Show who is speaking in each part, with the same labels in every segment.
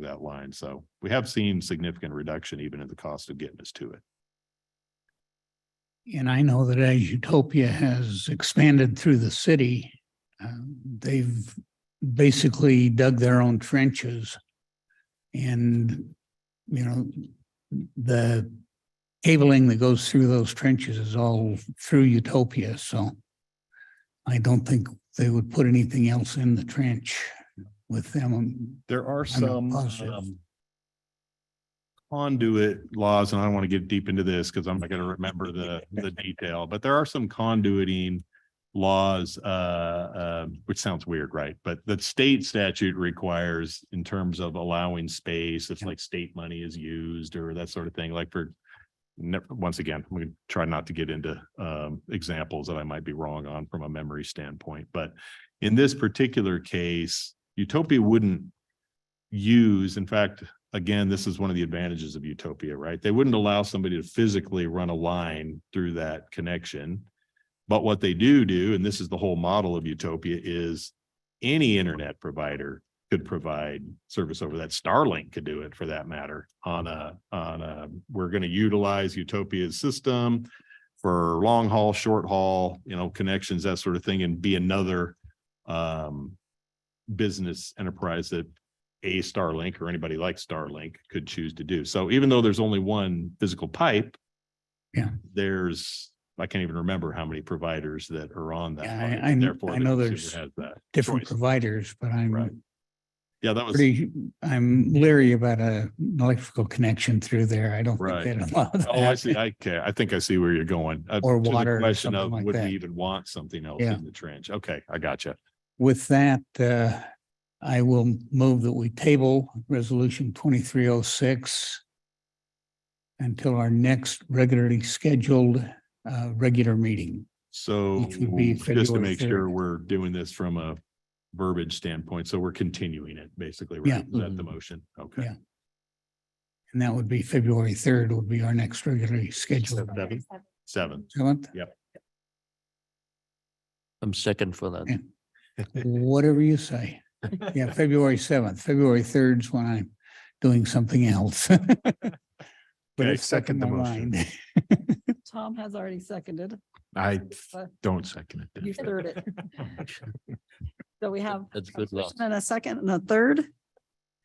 Speaker 1: that line. So we have seen significant reduction even in the cost of getting us to it.
Speaker 2: And I know that as Utopia has expanded through the city, uh, they've basically dug their own trenches. And, you know, the cabling that goes through those trenches is all through Utopia, so I don't think they would put anything else in the trench with them. um,
Speaker 1: There are
Speaker 2: I'm not
Speaker 1: some
Speaker 2: positive.
Speaker 1: um, conduit laws, and I don't want to get deep into this because I'm not going to remember the, the detail, but there are some conduiting laws, uh, um, which sounds weird, right? But the state statute requires in terms of allowing space, if like state money is used or that sort of thing, like for never, once again, we try not to get into um examples that I might be wrong on from a memory standpoint, but in this particular case, Utopia wouldn't use, in fact, again, this is one of the advantages of Utopia, right? They wouldn't allow somebody to physically run a line through that connection. But what they do do, and this is the whole model of Utopia, is any internet provider could provide service over that. Starlink could do it for that matter on a, on a, we're going to utilize Utopia's system for long haul, short haul, you know, connections, that sort of thing, and be another um business enterprise that a Starlink or anybody like Starlink could choose to do. So even though there's only one physical pipe.
Speaker 2: Yeah.
Speaker 1: There's, I can't even remember how many providers that are on that.
Speaker 2: Yeah, I-
Speaker 1: line,
Speaker 2: I kn-
Speaker 1: therefore
Speaker 2: I
Speaker 1: the
Speaker 2: know
Speaker 1: consumer
Speaker 2: there's
Speaker 1: has that
Speaker 2: Different
Speaker 1: choice.
Speaker 2: providers, but
Speaker 1: Right.
Speaker 2: I'm
Speaker 1: Yeah, that was,
Speaker 2: pretty, I'm leery about a an electrical connection through there. I don't
Speaker 1: Right.
Speaker 2: think they'd allow that.
Speaker 1: oh, I see. I, okay, I think I see where you're going. Uh,
Speaker 2: Or
Speaker 1: to the
Speaker 2: water or
Speaker 1: Question
Speaker 2: something
Speaker 1: of
Speaker 2: like
Speaker 1: would we
Speaker 2: that.
Speaker 1: even want something else
Speaker 2: Yeah.
Speaker 1: in the trench? Okay, I gotcha.
Speaker 2: With that, uh, I will move that we table resolution twenty-three oh six until our next regularly scheduled, uh, regular meeting.
Speaker 1: So
Speaker 2: Which would be
Speaker 1: just to
Speaker 2: February
Speaker 1: make
Speaker 2: 3rd.
Speaker 1: sure we're doing this from a verbiage standpoint, so we're continuing it basically, right?
Speaker 2: Yeah. Mm-hmm.
Speaker 1: Is that the motion? Okay.
Speaker 2: Yeah. And that would be February third would be our next regularly scheduled.
Speaker 1: Seven. Seven.
Speaker 2: Seventh,
Speaker 3: I'm second for that.
Speaker 2: Yeah. whatever you say. Yeah, February seventh, February third's when I'm doing something else. But
Speaker 1: Okay,
Speaker 2: it's stuck
Speaker 1: second
Speaker 2: in
Speaker 1: the
Speaker 2: my
Speaker 1: motion.
Speaker 2: mind.
Speaker 4: Tom has already seconded.
Speaker 1: I
Speaker 4: Uh,
Speaker 1: don't second
Speaker 4: You third it. So we have
Speaker 3: That's
Speaker 4: a
Speaker 3: good luck.
Speaker 4: first and a second and a third.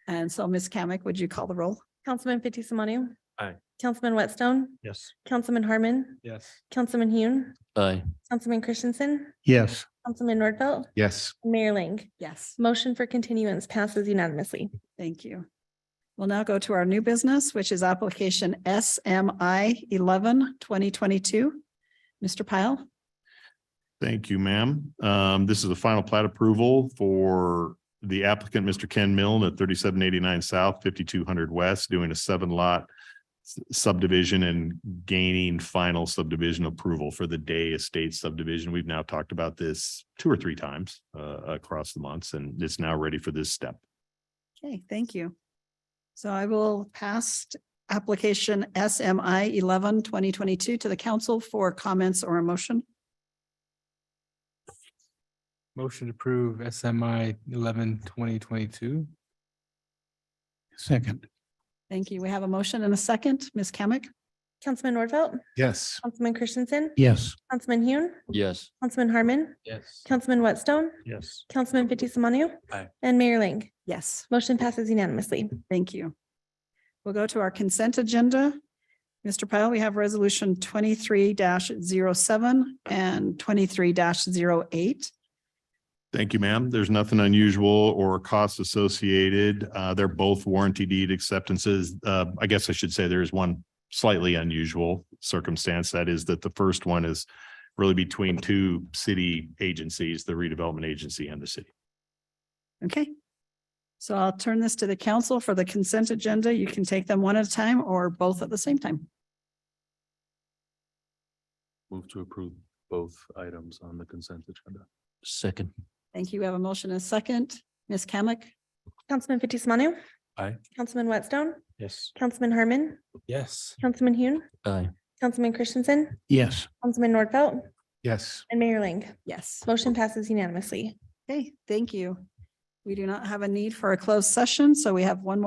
Speaker 4: And so Ms. Kamic, would you call the roll?
Speaker 5: Councilman Fitzie Umanu.
Speaker 6: Aye.
Speaker 5: Councilman Whitstone,
Speaker 6: Yes.
Speaker 5: Councilman Harmon,
Speaker 6: Yes.
Speaker 5: Councilman Hune,
Speaker 3: Aye.
Speaker 5: Councilman Christensen,
Speaker 2: Yes,
Speaker 5: Councilman Nordfeld,
Speaker 6: Yes.
Speaker 5: and Mayor Ling.
Speaker 4: Yes,
Speaker 5: Motion for continuance passes unanimously.
Speaker 4: thank you. We'll now go to our new business, which is application SMI 11 2022. Mr. Pyle?
Speaker 1: Thank you, ma'am. Um, this is the final plat approval for the applicant, Mr. Ken Milne at thirty-seven eighty-nine South, fifty-two hundred West, doing a seven lot s- subdivision and gaining final subdivision approval for the Day Estate subdivision. We've now talked about this two or three times uh, across the months, and it's now ready for this step.
Speaker 4: Okay, thank you. So I will pass application SMI 11 2022 to the council for comments or a motion.
Speaker 6: Motion to approve SMI eleven twenty twenty-two.
Speaker 2: second.
Speaker 4: Thank you. We have a motion and a second. Ms. Kamic?
Speaker 5: Councilman Nordfeld,
Speaker 6: Yes.
Speaker 5: Councilman Christensen,
Speaker 2: Yes,
Speaker 5: Councilman Hune,
Speaker 3: Yes.
Speaker 5: Councilman Harmon,
Speaker 6: Yes.
Speaker 5: Councilman Whitstone,
Speaker 6: Yes.
Speaker 5: Councilman Fitzie Umanu.
Speaker 6: Aye.
Speaker 5: And Mayor Ling.
Speaker 4: Yes.
Speaker 5: Motion passes unanimously.
Speaker 4: Thank you. We'll go to our consent agenda. Mr. Pyle, we have resolution twenty-three 7 and twenty-three 8
Speaker 1: Thank you, ma'am. There's nothing unusual or costs associated. Uh, they're both warranty deed acceptances. Uh, I guess I should say there is one slightly unusual circumstance. That is that the first one is really between two city agencies, the redevelopment agency and the city.
Speaker 4: Okay. So I'll turn this to the council for the consent agenda. You can take them one at a time or both at the same time.
Speaker 7: Move to approve both items on the consent agenda.
Speaker 3: Second.
Speaker 4: Thank you. We have a motion and a second. Ms. Kamic?
Speaker 5: Councilman Fitzie Umanu.
Speaker 7: Aye.
Speaker 5: Councilman Whitstone,
Speaker 6: Yes.
Speaker 5: Councilman Harmon,
Speaker 6: Yes.
Speaker 5: Councilman Hune,
Speaker 3: Aye.
Speaker 5: Councilman Christensen,
Speaker 2: yes.
Speaker 5: Councilman Nordfeld,
Speaker 6: Yes.
Speaker 5: and Mayor Ling.
Speaker 4: Yes.
Speaker 5: Motion passes unanimously.
Speaker 4: Okay, thank you. We do not have a need for a closed session, so we have one more